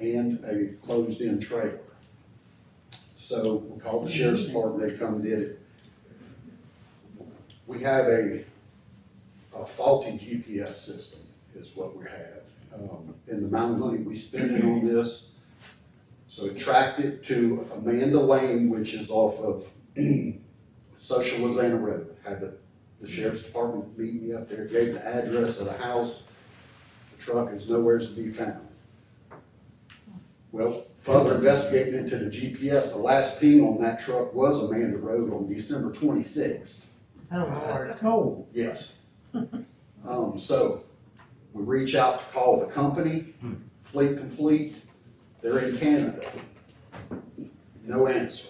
and a closed-in trailer. So we called the sheriff's department, they come and did it. We have a, a faulty GPS system is what we have. Um, and the amount of money we spending on this, so it tracked it to Amanda Lane, which is off of Social Lozana Road. Had the, the sheriff's department meet me up there, gave the address of the house. The truck is nowhere to be found. Well, further investigating into the GPS, the last ping on that truck was Amanda Road on December twenty-sixth. Oh, Lord. Oh, Yes. Um, so, we reach out to call the company, Fleet Complete, they're in Canada. No answer.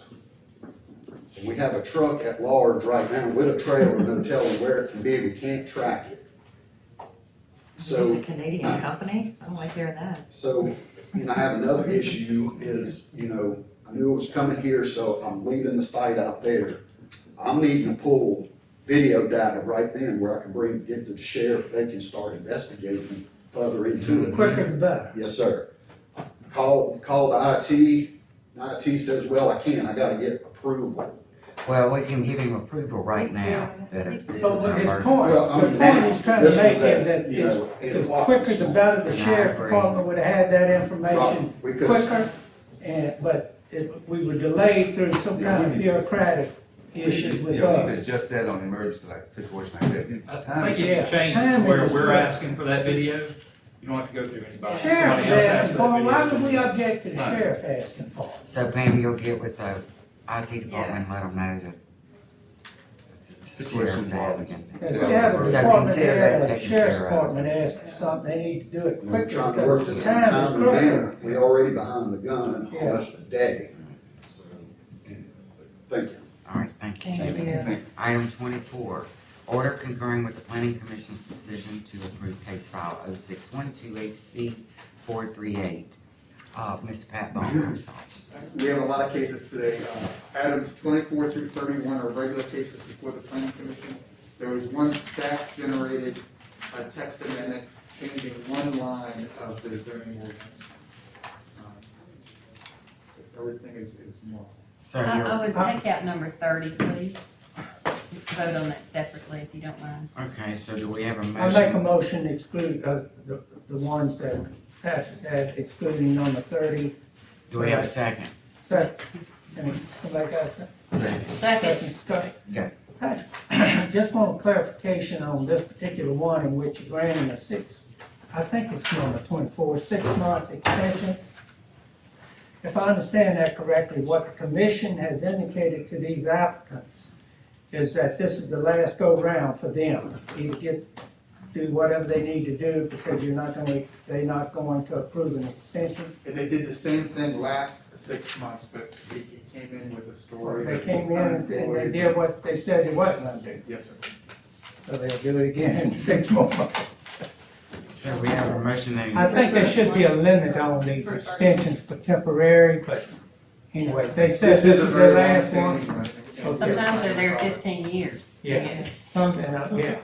And we have a truck at large right now with a trailer, no telling where it can be, we can't track it. So. It's a Canadian company? I don't like hearing that. So, you know, I have another issue is, you know, I knew it was coming here, so I'm leaving the site out there. I'm needing to pull video data right then where I can bring, get to the sheriff, they can start investigating further into it. quicker the better. Yes, sir. Call, call the IT, and IT says, well, I can't, I gotta get approval. Well, we can give him approval right He's now doing it. that it's, this So, is but an his emergency. point- Well, I the mean, point now, he's trying to this make was at, is that you it's- know, eight The o'clock quicker this the morning. better, the And I sheriff agree. department would have had that information Right, We could quicker, and, but it, we were delayed through some kind of bureaucratic issues with Yeah, we could us. adjust that on emergency like situation like that. I Time think is- if you change it to Timing where is we're right. asking for that video, you don't have to go through anybody. Sheriff Somebody is else asking asked for, that it. why video. would we object to the Right. sheriff asking for? it? So Pam, you'll get with the IT department, and let them know that it's the sheriff's Situation was- asking. Because we have a So department consider there, that the taken sheriff's care of. department asks for something, they need to do it We're quicker. trying to work because this the in a time is timely critical. manner. We already behind the gun Yeah. almost a day. Thank you. All right, thank you, Thank Timmy. you. Item twenty-four, order concurring with the planning commission's decision to approve case file oh six one two H C four three eight. Uh, Mr. Pat Bone, I'm sorry. We have a lot of cases today. Uh, Items twenty-four through thirty-one are regular cases before the planning commission. There was one staff-generated uh, text amendment changing one line of the zoning ordinance. Um, Uh, Everything is, is normal. So Uh, I, you're, Uh, I would take out number thirty, please. Vote on that separately if you don't mind. okay, so do we have a I make a motion? motion to exclude, uh, the, the ones that passes that excluding number thirty, Do we have a second? second, and somebody got a second? Second, Go. I Just want clarification on this particular one in which you're granting a six, I think it's number twenty-four, six-month extension. If I understand that correctly, what the commission has indicated to these applicants is that this is the last go-round for them. Either get, do whatever they need to do because you're not gonna, they're not going to approve an extension. And they did the same thing last six months, but he he came in with a story. They that came was in and they did what they said they wasn't gonna do, Yes, sir. so they'll do it again in six more months. So we have a motion and I a think there should be a limit on these extensions for temporary, but anyway, they said this is their last one. Okay. sometimes they're there fifteen years. Yeah. Some, and, uh, yeah,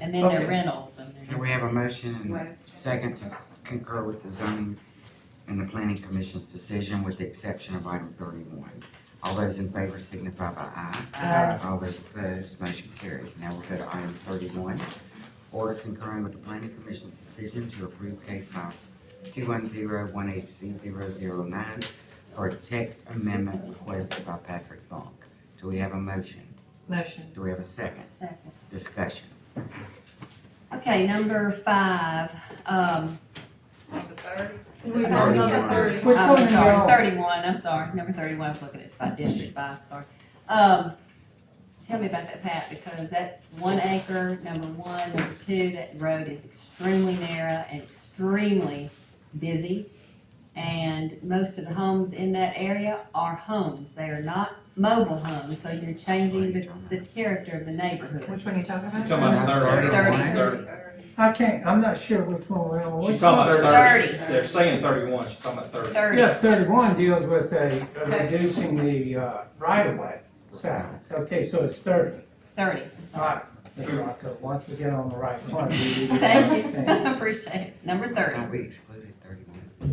And then Okay. they're rentals and So they're. we have a motion and a second to concur with the zoning and the planning commission's decision with the exception of item thirty-one. All those in favor signify by aye. Uh, Aye. All those opposed, motion carries. Now we'll go to item thirty-one. Order concurring with the planning commission's decision to approve case file two one zero one HC 9 for a text amendment requested by Patrick Funk. Do we have a motion? Motion. Do we have a second? Second. Discussion. Okay, number five, um, We Okay. voted on thirty. I'm Which one are you Um, sorry, on? Thirty-one, I'm sorry, number thirty-one, I was looking at five, district five, sorry. Um, tell me about that, Pat, because that's one acre, number one, number two, that road is extremely narrow and extremely busy. And most of the homes in that area are homes, they are not mobile homes, so you're changing the, the character of the neighborhood. Which one are you talking You're about? Talking about thirty. Thirty. I can't, I'm not sure which one we're on. She's Which talking one? about thirty. Thirty. They're saying thirty-one, she's talking about thirty. Thirty. Yeah, thirty-one deals with a, uh, reducing the, uh, right-of-way size. Okay, so it's thirty, Thirty. all right. Mr. Rocco, once we get on the right one. we- we- Thank you, appreciate it, number I thirty. thought we excluded